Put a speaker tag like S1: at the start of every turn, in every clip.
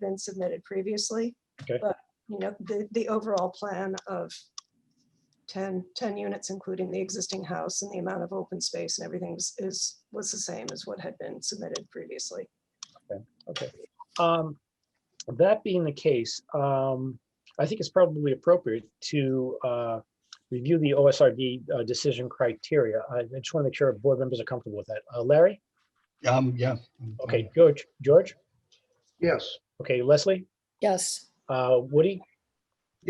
S1: been submitted previously.
S2: Okay.
S1: But, you know, the, the overall plan of 10, 10 units, including the existing house and the amount of open space and everything is- is, was the same as what had been submitted previously.
S2: Okay. Um, That being the case, um, I think it's probably appropriate to uh, review the OSRD uh, decision criteria. I I just want to make sure board members are comfortable with that. Uh, Larry?
S3: Um, yeah.
S2: Okay, George, George?
S3: Yes.
S2: Okay, Leslie?
S4: Yes,
S2: Uh, Woody?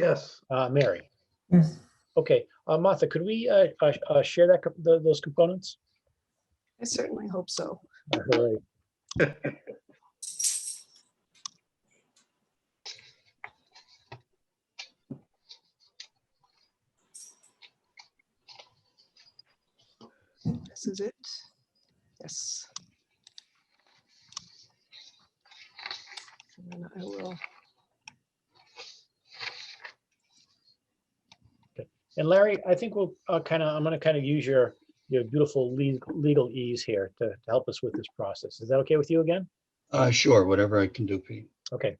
S3: Yes.
S2: Uh, Mary?
S5: Yes.
S2: Okay, uh, Martha, could we uh, uh, uh, share that, co- tho- those components?
S1: I certainly hope so.
S2: Uh, hooray.
S1: This is it. Yes. And then I will,
S2: And Larry, I think we'll kind of, I'm going to kind of use your, your beautiful le- legal ease here to to help us with this process. Is that okay with you again?
S3: Uh, sure, whatever I can do, Pete.
S2: Okay.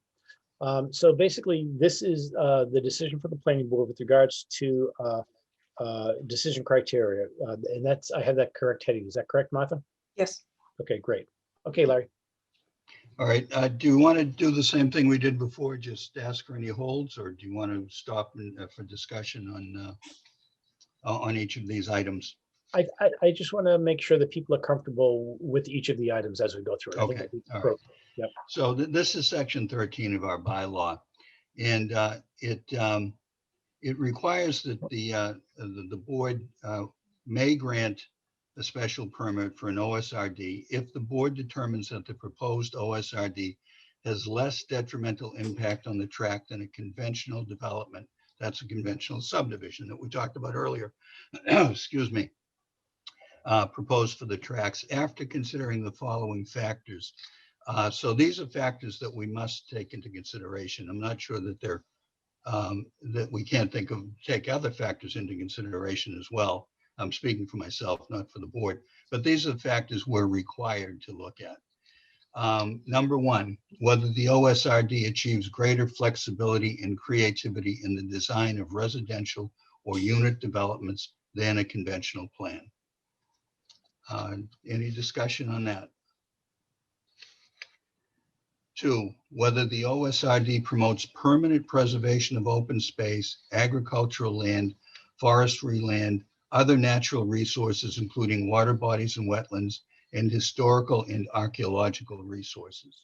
S2: Um, So basically, this is uh, the decision for the planning board with regards to uh, uh, decision criteria. uh, And that's, I have that correct heading. Is that correct, Martha?
S1: yes,
S2: Okay, great. Okay, Larry.
S3: All right, uh, do you want to do the same thing we did before, just ask for any holds, or do you want to stop and, uh, for discussion on, uh, o- on each of these items?
S2: I, I- I just want to make sure that people are comfortable with each of the items as we go through. I think
S3: Okay,
S2: that'd be
S3: all right.
S2: appropriate.
S3: So th- this is section thirteen of our bylaw. And uh, it, um, it requires that the, uh, the, the board uh, may grant a special permit for an OSRD if the board determines that the proposed OSRD has less detrimental impact on the tract than a conventional development. That's a conventional subdivision that we talked about earlier. Excuse me. Uh, Proposed for the tracts after considering the following factors. Uh, So these are factors that we must take into consideration. I'm not sure that they're, um, that we can't think of, take other factors into consideration as well. I'm speaking for myself, not for the board, but these are the factors we're required to look at. Um, Number one, whether the OSRD achieves greater flexibility and creativity in the design of residential or unit developments than a conventional plan. Uh, Any discussion on that? Two, whether the OSRD promotes permanent preservation of open space, agricultural land, forestry land, other natural resources, including water bodies and wetlands, and historical and archaeological resources.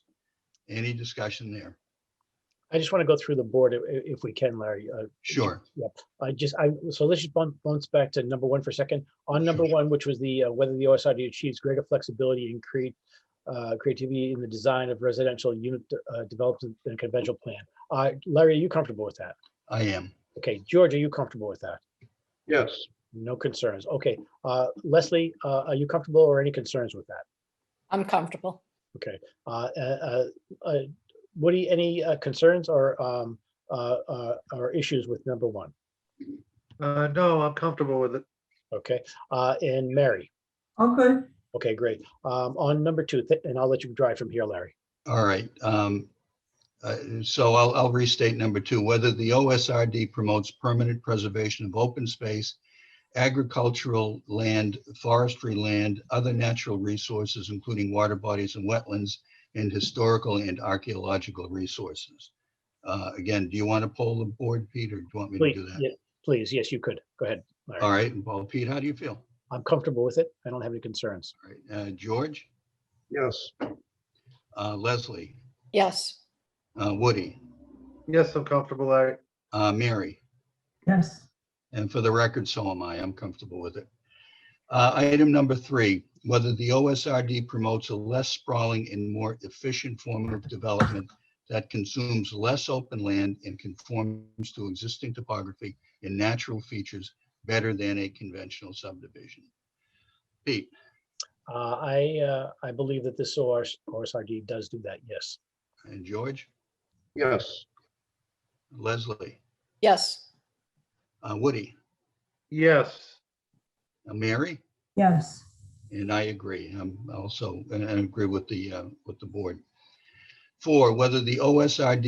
S3: Any discussion there?
S2: I just want to go through the board i- i- if we can, Larry. uh,
S3: Sure.
S2: I just, I, so let's just bounce, bounce back to number one for a second. On number one, which was the, uh, whether the OSRD achieves greater flexibility and create, uh, creativity in the design of residential unit, uh, developed in in a conventional plan. Uh, Larry, are you comfortable with that?
S3: I am.
S2: Okay, George, are you comfortable with that?
S3: Yes.
S2: No concerns. Okay, uh, Leslie, uh, are you comfortable or any concerns with that?
S4: I'm comfortable.
S2: Okay, uh, uh, uh, uh, Woody, any, uh, concerns or, um, uh, uh, or issues with number one?
S6: Uh, no, I'm comfortable with it.
S2: Okay, uh, and Mary?
S5: I'm good.
S2: Okay, great. Um, on number two, th- and I'll let you drive from here, Larry.
S3: All right. um, uh, So I'll, I'll restate number two, whether the OSRD promotes permanent preservation of open space, agricultural land, forestry land, other natural resources, including water bodies and wetlands, and historical and archaeological resources. Uh, Again, do you want to poll the board, Pete, or do you want me to
S2: Please,
S3: do that?
S2: yeah, please, yes, you could. Go ahead. Larry.
S3: All right, well, Pete, how do you feel?
S2: I'm comfortable with it. I don't have any concerns.
S3: All right, uh, George,
S6: Yes.
S3: uh, Leslie,
S4: Yes,
S3: uh, Woody,
S6: Yes, I'm comfortable, Larry.
S3: uh, Mary.
S5: Yes.
S3: And for the record, so am I. I'm comfortable with it. Uh, Item number three, whether the OSRD promotes a less sprawling and more efficient form of development that consumes less open land and conforms to existing topography and natural features better than a conventional subdivision. Pete,
S2: Uh, I, uh, I believe that this ORS, OSRD does do that, yes.
S3: and George,
S6: Yes.
S3: Leslie,
S4: yes,
S3: uh, Woody,
S6: Yes.
S3: uh, Mary?
S5: Yes.
S3: And I agree. I'm also, and I agree with the, uh, with the board. Four, whether the OSRD